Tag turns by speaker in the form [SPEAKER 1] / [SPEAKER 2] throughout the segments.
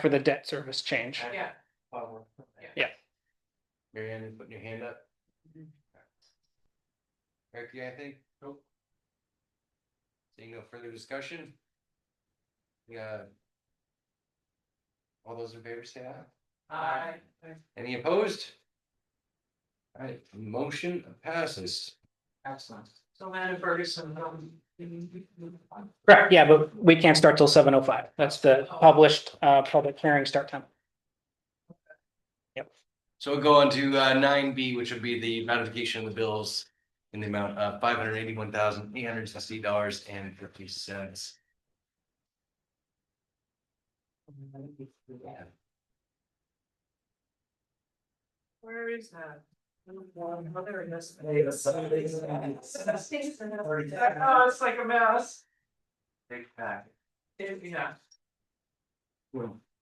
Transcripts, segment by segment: [SPEAKER 1] for the debt service change.
[SPEAKER 2] Yeah.
[SPEAKER 3] Oh, okay.
[SPEAKER 1] Yeah.
[SPEAKER 3] Mary Ann, you putting your hand up? Eric, you got anything? Nope. Seeing no further discussion? Yeah. All those in favor say aye.
[SPEAKER 2] Aye.
[SPEAKER 3] Any opposed? Alright, motion passes.
[SPEAKER 2] Excellent. So Madam Ferguson, um.
[SPEAKER 1] Correct, yeah, but we can't start till seven oh five. That's the published uh public hearing start time.
[SPEAKER 3] So we'll go on to uh nine B, which would be the ratification of the bills in the amount of five hundred eighty-one thousand eight hundred sixty dollars and fifty cents.
[SPEAKER 2] Where is that? Oh, there it is. Oh, it's like a mouse.
[SPEAKER 3] Big pack.
[SPEAKER 2] Yeah,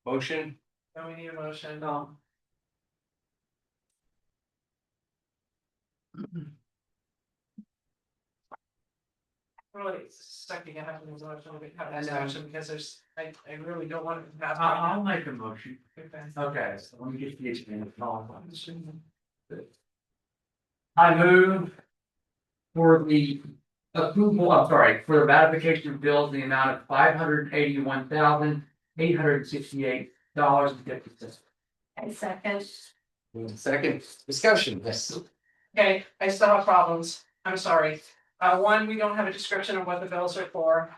[SPEAKER 3] Motion?
[SPEAKER 2] now we need a motion. um. No. Really stuck again after this election, we have this action because there's, I, I really don't want it to happen.
[SPEAKER 4] I'll, I'll make a motion.
[SPEAKER 2] Okay.
[SPEAKER 4] Okay, so let me get the agenda. I move for the approval, I'm sorry, for the ratification of bills in the amount of five hundred eighty-one thousand, eight hundred sixty-eight dollars and fifty cents.
[SPEAKER 5] I second.
[SPEAKER 3] Second discussion, yes.
[SPEAKER 2] Okay, I still have problems, I'm sorry. Uh, one, we don't have a description of what the bills are for.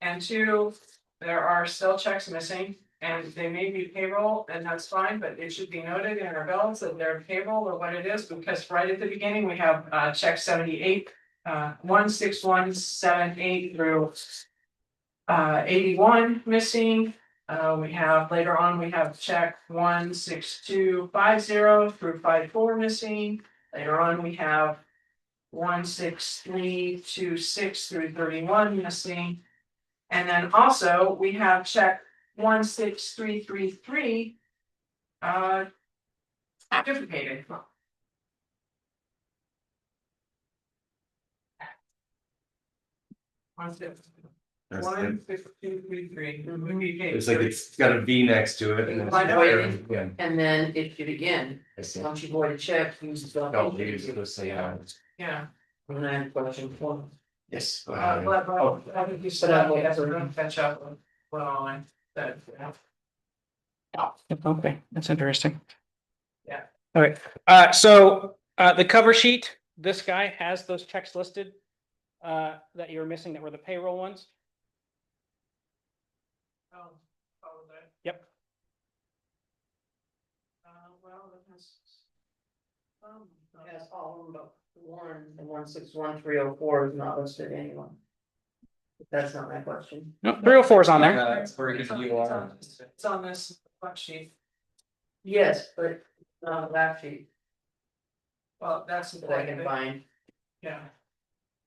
[SPEAKER 2] And two, there are still checks missing and they may be payroll and that's fine, but it should be noted in our bills that they're payroll or what it is. Because right at the beginning, we have uh check seventy-eight, uh, one, six, one, seven, eight through. Uh, eighty-one missing, uh, we have later on, we have check one, six, two, five, zero through five, four missing. Later on, we have one, six, three, two, six through thirty-one missing. And then also, we have check one, six, three, three, three. Uh. Duplicated. One, six, one, six, two, three, three.
[SPEAKER 3] It's like it's got a V next to it and
[SPEAKER 6] By the way-
[SPEAKER 3] it's. Yeah,
[SPEAKER 6] And then if you again,
[SPEAKER 3] I see.
[SPEAKER 6] once you void a check, use the.
[SPEAKER 3] No, leave it, oh, let's say, uh,
[SPEAKER 2] Yeah.
[SPEAKER 6] And then question one.
[SPEAKER 3] Yes.
[SPEAKER 2] Uh,
[SPEAKER 3] uh,
[SPEAKER 2] but, but I think you said that, we have to catch up on, on that. um,
[SPEAKER 1] Okay, that's interesting.
[SPEAKER 2] Yeah.
[SPEAKER 1] All right, uh, so uh, the cover sheet, this guy has those checks listed uh, that you were missing that were the payroll ones.
[SPEAKER 2] Oh, oh, that.
[SPEAKER 1] Yep.
[SPEAKER 2] Uh, well, that has. Um,
[SPEAKER 6] Yes, all of them, but one, the one six one three oh four is not listed to anyone. That's not my question.
[SPEAKER 1] No, three oh four is on there.
[SPEAKER 3] uh, it's where you are.
[SPEAKER 2] It's on this front sheet,
[SPEAKER 6] Yes, but not a lap sheet
[SPEAKER 2] well, that's. the
[SPEAKER 6] that I can find.
[SPEAKER 2] Yeah,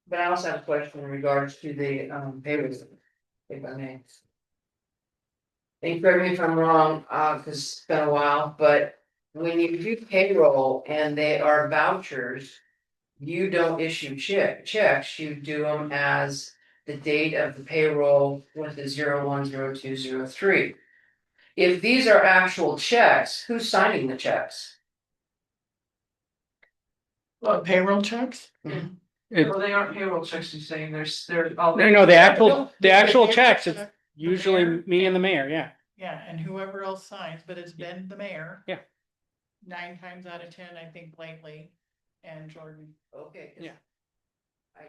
[SPEAKER 6] But I also have a question in regards to the um papers, if I may. And correct me if I'm wrong, uh, cause it's been a while, but when you do payroll and they are vouchers. You don't issue check, checks, you do them as the date of the payroll with the zero one, zero two, zero three. If these are actual checks, who's signing the checks?
[SPEAKER 1] It-
[SPEAKER 2] well, they aren't payroll checks, you're saying, there's, they're all.
[SPEAKER 1] No, no, the actual, the actual
[SPEAKER 7] The
[SPEAKER 1] checks, it's
[SPEAKER 7] check,
[SPEAKER 1] usually me and the mayor, yeah.
[SPEAKER 7] Yeah, and whoever else signs, but it's been the mayor.
[SPEAKER 1] Yeah.
[SPEAKER 7] Nine times out of ten, I think lately, and Jordan.
[SPEAKER 6] Okay. 'cause
[SPEAKER 1] Yeah.
[SPEAKER 6] I.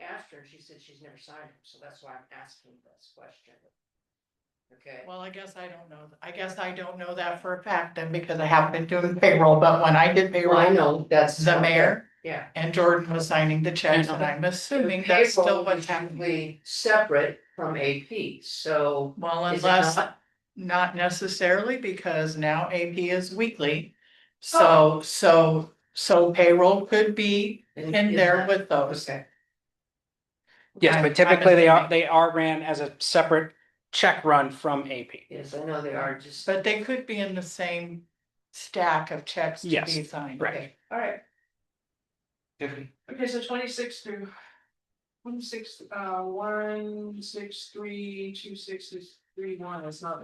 [SPEAKER 6] Asked her, and she said she's never signed them, so that's why I'm asking this question. Okay,
[SPEAKER 7] Well, I guess I don't know. I guess I don't know that for a fact then because I haven't been doing payroll, but when I did
[SPEAKER 6] well, I
[SPEAKER 7] payroll,
[SPEAKER 6] know, that's.
[SPEAKER 7] the mayor
[SPEAKER 6] Yeah.
[SPEAKER 7] and Jordan was signing the checks and I'm assuming that's still
[SPEAKER 6] Payroll
[SPEAKER 7] what's
[SPEAKER 6] is
[SPEAKER 7] happening.
[SPEAKER 6] usually Separate from AP, so.
[SPEAKER 7] Well,
[SPEAKER 6] is it
[SPEAKER 7] unless,
[SPEAKER 6] not?
[SPEAKER 7] not necessarily because now AP is weekly.
[SPEAKER 6] Oh.
[SPEAKER 7] So, so, so payroll could be
[SPEAKER 6] And
[SPEAKER 7] in
[SPEAKER 6] is
[SPEAKER 7] there
[SPEAKER 6] that-
[SPEAKER 7] with those.
[SPEAKER 6] Okay,
[SPEAKER 1] Yes,
[SPEAKER 7] I'm-
[SPEAKER 1] but
[SPEAKER 7] I'm
[SPEAKER 1] typically they are,
[SPEAKER 7] assuming.
[SPEAKER 1] they are ran as a separate check run from AP.
[SPEAKER 6] yes, I know they are just.
[SPEAKER 7] But they could be in the same stack of checks to
[SPEAKER 1] Yes,
[SPEAKER 7] be signed.
[SPEAKER 1] correct.
[SPEAKER 6] Okay, All right,
[SPEAKER 3] Tiffany,
[SPEAKER 2] Okay, so twenty-six through. One, six, uh, one, six, three, two, six, three, one, it's not